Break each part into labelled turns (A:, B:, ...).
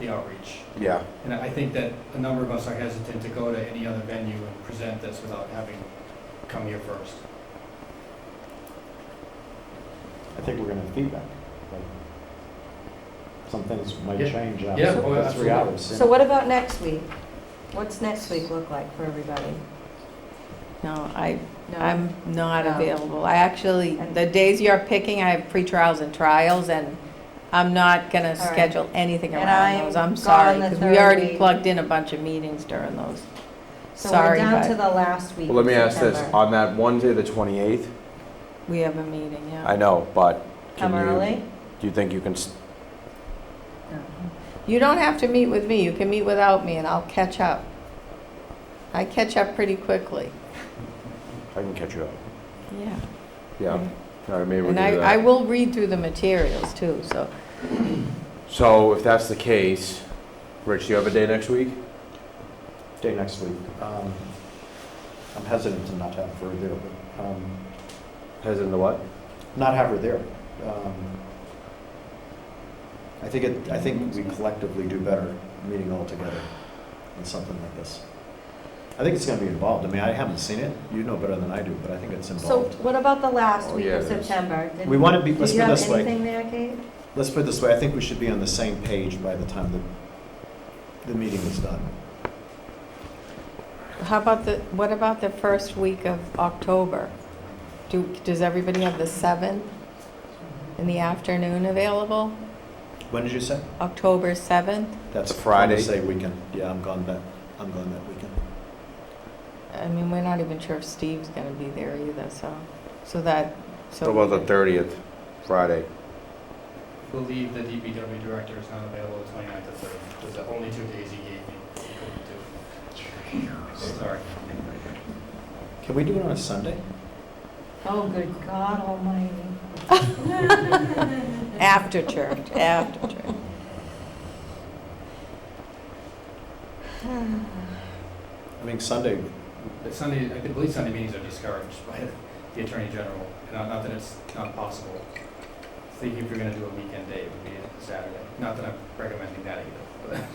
A: the outreach.
B: Yeah,
A: And I think that a number of us are hesitant to go to any other venue and present this without having come here first.
C: I think we're gonna have feedback. like, Some things might
A: Yeah.
C: change
A: Yeah,
C: after
A: oh,
C: the three
A: absolutely.
C: hours.
D: So what about next week? What's next week look like for everybody?
E: No, I,
D: No.
E: I'm not
D: No.
E: available. I actually, the days you're picking, I have pre-trials and trials, and I'm not gonna
D: right.
E: schedule anything
D: And
E: around those.
D: I'm
E: I'm sorry,
D: gone the
E: because we already
D: third
E: plugged in a bunch of meetings during those.
D: So we're
E: Sorry,
D: down
E: but
D: to the last week
B: well, let
D: in
B: me ask this,
D: September.
B: on that Wednesday, the 28th,
E: we have a meeting,
B: I
E: yeah.
B: know, but can
D: Come
B: you,
D: early?
B: do you think you can, s-
E: You don't have to meet with me. You can meet without me, and I'll catch up. I catch up pretty quickly,
B: I can catch you up?
E: yeah.
B: Yeah, all right, maybe we can
E: Mm-hmm. And I,
B: do
E: I
B: that.
E: will read through the materials too, so.
B: So if that's the case, Rich, do you have a day next week?
C: Day next week. Um, I'm hesitant to not have her there, but, um,
B: As in the what?
C: not have her there. Um, I think it, I think we collectively do better meeting all together on something like this. I think it's gonna be involved. I mean, I haven't seen it. You know better than I do, but I think it's
D: So
C: involved.
D: what about the last
B: Oh,
D: week
B: yeah,
D: of
B: it is.
D: September? Did-
C: We wanna be,
D: Do
C: let's
D: you
C: put it
D: have
C: this way.
D: anything there, Kate?
C: Let's put it this way, I think we should be on the same page by the time the, the meeting is done.
E: How about the, what about the first week of October? Do, does everybody have the 7th in the afternoon available?
C: When did you say?
E: October 7th?
C: That's
B: A Friday.
C: Say weekend, yeah, I'm gone that, I'm gone that weekend.
E: I mean, we're not even sure if Steve's going to be there either, so, so that, so.
B: What about the 30th, Friday?
A: I believe the DPW director is not available the 29th to 30th. Those are the only two days he gave me. He couldn't do it. Sorry.
C: Can we do it on a Sunday?
D: Oh, good God almighty.
E: After church, after church.
C: I mean, Sunday,
A: But Sunday, I believe Sunday meetings are discouraged by the Attorney General. And Not not that it's not possible. I think if you're going to do a weekend day, it would be a Saturday. Not that I'm recommending that either.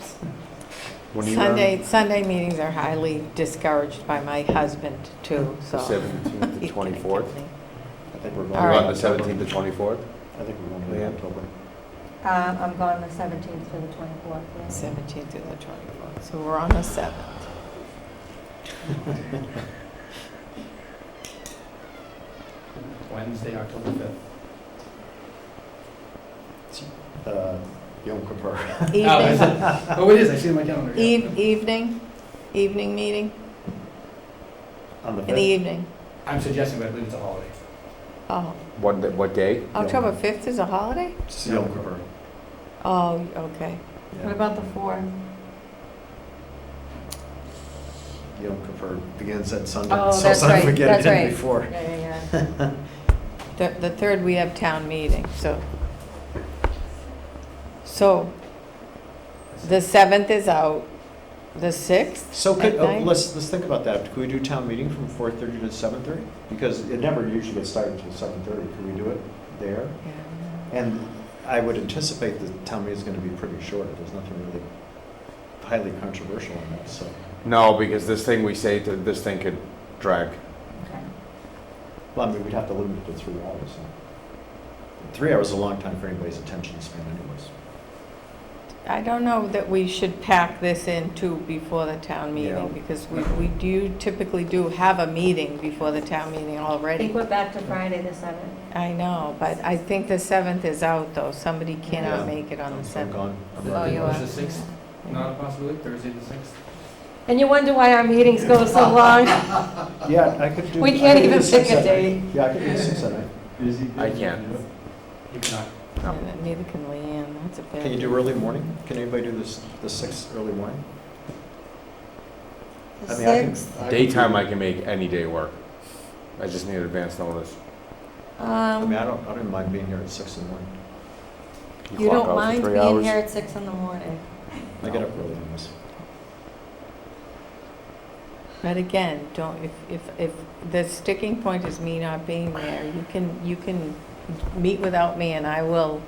B: When are you around?
E: Sunday, Sunday meetings are highly discouraged by my husband too, so.
B: The 17th to
E: He's gonna kill
B: 24th?
E: me.
C: I think we're going.
E: All right.
B: About the 17th to 24th?
C: I think we're going to
B: Yeah.
C: October.
D: Uh, I'm gone the 17th to the 24th. yeah.
E: 17th to the 24th, so we're on the 7th.
A: But Wednesday, October 5th.
C: Uh, Yom Kippur.
A: Oh,
E: Evening.
A: is it? Oh, it is, I see it in my calendar. yeah.
E: Eve, evening, evening meeting,
C: On the
E: in the
C: fifth.
E: evening.
A: I'm suggesting, but I believe it's a holiday.
E: Oh,
B: What, da- what day?
E: October 5th is a holiday?
C: It's Yom Kippur.
E: Oh, okay.
D: What
C: Yeah.
D: about the 4th?
C: Yom Kippur begins at sundown,
D: Oh,
C: so
D: that's
C: don't
D: right,
C: forget
D: that's
C: it in
D: right.
C: before.
D: Yeah, yeah, yeah.
E: The, the third, we have town meeting, so. So, the 7th is out, the 6th?
C: So could,
E: At
C: oh,
E: night?
C: let's, let's think about that. Could we do town meeting from 4:30 to 7:30? Because it never usually gets started until 7:30. Could we do it there?
E: Yeah.
C: And I would anticipate the town meeting is going to be pretty short. There's nothing really highly controversial in that, so.
B: No, because this thing we say, to this thing could drag.
D: Okay.
C: Well, I mean, we'd have to limit it to three hours. so. Three hours is a long time for anybody's attention span anyways.
E: I don't know that we should pack this in too before the town
C: Yeah.
E: meeting, because we, we do typically do have a meeting before the town meeting
D: I
E: already.
D: think we're back to Friday the 7th.
E: I know, but I think the seventh is out, though. Somebody
C: Yeah.
E: cannot make it on
C: I'm-
E: the
C: I'm
E: seventh.
C: gone. I'm
D: Oh,
C: already
D: you
C: gone.
D: are.
A: Is the 6th not a possibility, Thursday the 6th?
D: And you wonder why our meetings go so long.
C: Yeah, I could do.
D: We
C: I
D: can't
C: could do
D: even
C: six
D: pick a
C: at night.
D: date.
C: Yeah, I could do six at night.
B: I can't.
A: You cannot.
E: And Oh, Neither can Leanne, that's a bad.
C: Can you do early morning? Can anybody do this, the sixth early morning?
D: The
C: I mean, I can-
D: 6th?
C: I could
B: Daytime,
C: do-
B: I can make any day work. I just need advance notice.
C: I mean,
E: Um,
C: I don't, I don't mind being here at six in the morning.
E: you
B: clock out
E: don't
B: for
E: mind
B: three
E: being
B: hours.
E: here
D: At 6 in the morning.
C: I get up early on this.
E: But again, don't, if, if, if the sticking point is me not being there, you can, you can meet without me and I will